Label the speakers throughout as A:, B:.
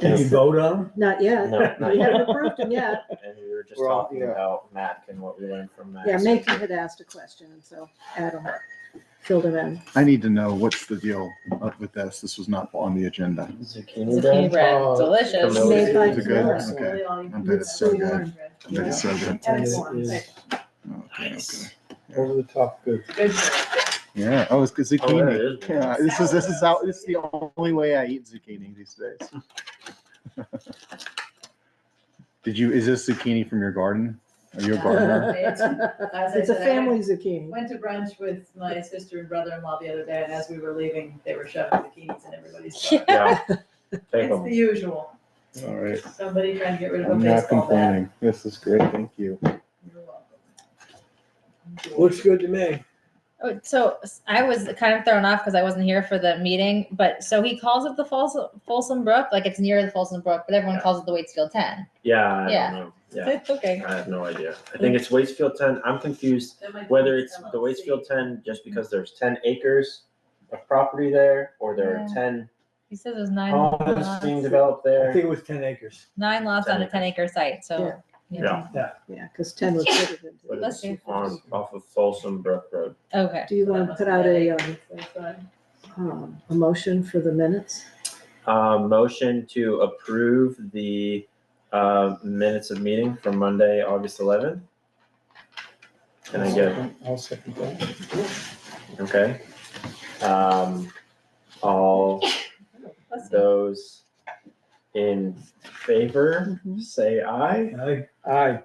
A: Can you vote on them?
B: Not yet.
C: No, not
B: We haven't
C: yet.
B: approved them yet.
C: And we were just
D: We're all-
C: talking
D: yeah.
C: about Mac and what we learned from Mac.
B: Yeah, Macon had asked a question, and so Adam filled him in.
E: I need to know what's the deal up with this. This was not on the agenda.
C: Zucchini
F: Zucchini
C: bread.
F: bread,
D: Oh,
F: delicious.
C: Those
B: Made by
E: are good,
B: Camilla.
E: okay. I bet it's so good. I bet it's so good.
D: It is
E: Okay, okay.
D: Over the top good.
E: Yeah. Oh, it's good
C: Oh,
E: zucchini.
C: it is.
E: Yeah, this is this is out. This is the only way I eat zucchini these days. Did you? Is this zucchini from your garden? Are you a gardener?
B: It's a family zucchini.
F: Went to brunch with my sister and brother-in-law the other day, and as we were leaving, they were shoving bikinis in everybody's car.
C: Yeah. Take
F: It's
C: 'em.
F: the usual,
E: All right.
F: somebody trying to get rid of a
E: I'm not
F: baseball bat.
E: complaining. This is great. Thank you.
F: You're welcome.
D: Looks good to me.
F: Oh, So s- I was kind of thrown off because I wasn't here for the meeting, but so he calls it the Folsom, Folsom Brook, like it's near the Folsom Brook, but everyone
C: Yeah.
F: calls it the Waitsfield Ten.
C: Yeah, I
F: Yeah.
C: don't know. Yeah,
F: It's okay.
C: I have no idea. I think it's Waitsfield ten. I'm confused whether it's the Waitsfield ten just because there's ten acres of property there or there are
F: Yeah.
C: ten
F: He says there's nine
C: homes being
F: lots,
C: developed
D: I think
C: there.
D: it was ten acres.
F: nine lots on a
C: 10
F: ten acre site, so. you know.
C: Yeah.
B: Yeah, because ten was fitted into
C: But
B: it.
F: Bless
C: it's
F: you.
C: on, off of Folsom Brook Road.
F: Okay.
B: Do you want to put out a, um, um, a motion for the minutes?
C: Uh, motion to approve the, uh, minutes of meeting from Monday, August eleventh. Can I get,
D: I'll second that.
C: okay? Um, all
F: Bless you.
C: those in favor,
B: Mhm.
C: say aye.
D: Aye, aye.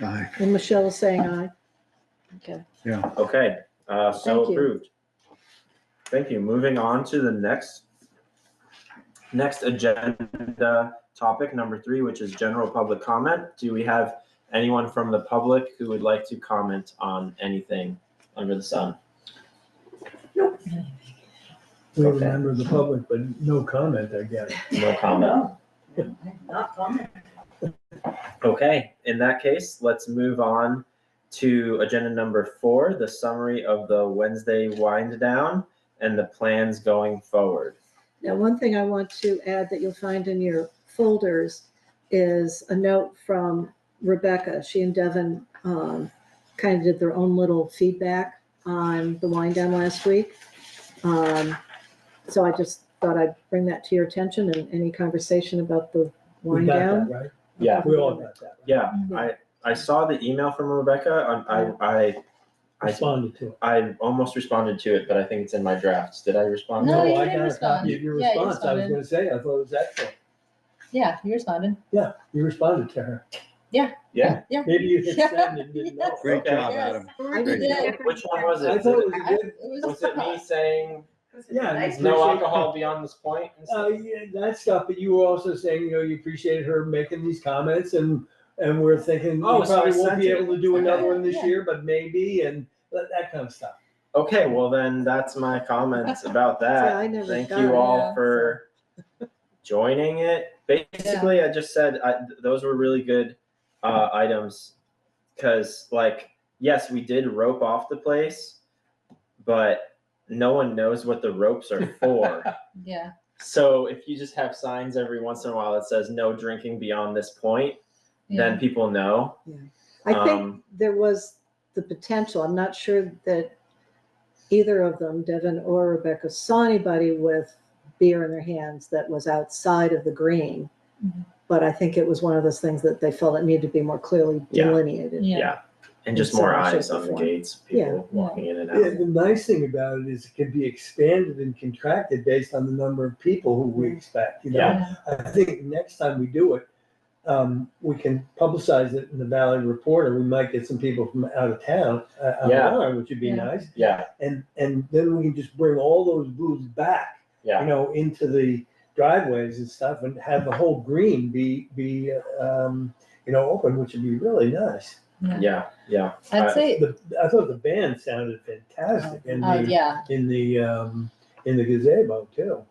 E: Bye.
B: And Michelle is saying aye. Okay.
C: Okay, uh, so
B: Thank you.
C: approved. Thank you. Moving on to the next, next agenda topic, number three, which is general public comment. Do we have anyone from the public who would like to comment on anything under the sun?
D: We
C: Okay.
D: remember the public, but no comment, I guess.
C: No comment.
F: Not comment.
C: Okay, in that case, let's move on to agenda number four, the summary of the Wednesday wind down and the plans going forward.
B: Now, one thing I want to add that you'll find in your folders is a note from Rebecca. She and Devin um, kind of did their own little feedback on the wind down last week. Um, So I just thought I'd bring that to your attention and any conversation about the
D: We
B: wind
D: got
B: down.
D: that, right?
C: Yeah.
D: We all got that. right?
C: Yeah, I, I saw the email from Rebecca. I, I, I, I,
D: Responded to it.
C: I almost responded to it, but I think it's in my drafts. Did I respond?
F: No,
C: to it?
F: you
D: I
F: didn't
D: got a copy
F: respond.
D: of Your
F: Yeah, you
D: response, I was
F: responded.
D: gonna say, I thought it was excellent.
F: Yeah, you responded.
D: You responded to her.
C: Yeah.
D: Maybe you hit send and didn't know.
E: Great
C: Okay.
E: job,
F: Yes.
E: Adam.
B: I
E: Great.
B: did.
C: Which one was
D: I
C: it?
D: thought it
C: Was
D: was a good,
F: It
C: it- was it me saying
D: yeah. and
F: Nice.
C: no
D: appreciate-
C: alcohol beyond this point? and
D: Uh,
C: stuff?
D: yeah, that stuff, but you were also saying, you know, you appreciated her making these comments and, and we're thinking,
C: Oh,
D: we
C: so I
D: probably won't
C: sent
D: be
C: it.
D: able to do another one this
F: Yeah.
D: year, but maybe, and that, that kind of stuff.
C: Okay, well then, that's my comments about that.
B: I never
C: Thank
B: got
C: you
B: it.
C: all
F: Yeah,
C: for joining it. Basically, I just said, I, th- those were really good, uh, items. Cause like, yes, we did rope off the place, but no one knows what the ropes are for.
F: Yeah.
C: So if you just have signs every once in a while that says no drinking beyond this point,
F: yeah.
C: then people know.
B: I think
C: Um,
B: there was the potential, I'm not sure that either of them, Devin or Rebecca, saw anybody with beer in their hands that was outside of the green.
F: Mhm.
B: But I think it was one of those things that they felt it needed to be more clearly
C: Yeah.
B: delineated.
F: Yeah.
C: And just
B: In some
C: more
B: way, shape,
C: eyes
B: or
C: on the
B: form.
C: gates,
B: Yeah.
C: people walking in and
D: Yeah,
C: out.
D: the nice thing about it is it can be expanded and contracted based on the number of people who we expect, you know?
F: Yeah.
D: I think next time we do it, um, we can publicize it in the Valley Reporter. We might get some people from out of town, uh, on
C: Yeah.
D: board, which would be
F: Yeah.
D: nice.
C: Yeah,
D: And, and then we can just bring all those booths back
C: yeah.
D: you know, into the driveways and stuff and have the whole green be, be, um, you know, open, which would be really nice.
C: Yeah, yeah.
F: I'd say,
D: The, I thought the band sounded fantastic in
F: uh,
D: the,
F: yeah,
D: in the, um, in the gazebo too.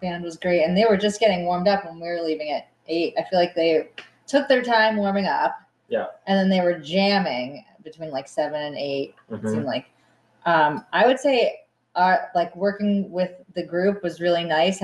F: band was great. And they were just getting warmed up when we were leaving at eight. I feel like they took their time warming up.
C: Yeah.
F: And then they were jamming between like seven and eight. It
C: Mhm.
F: seemed uh, like, um, I would say, our like working with the group was really nice.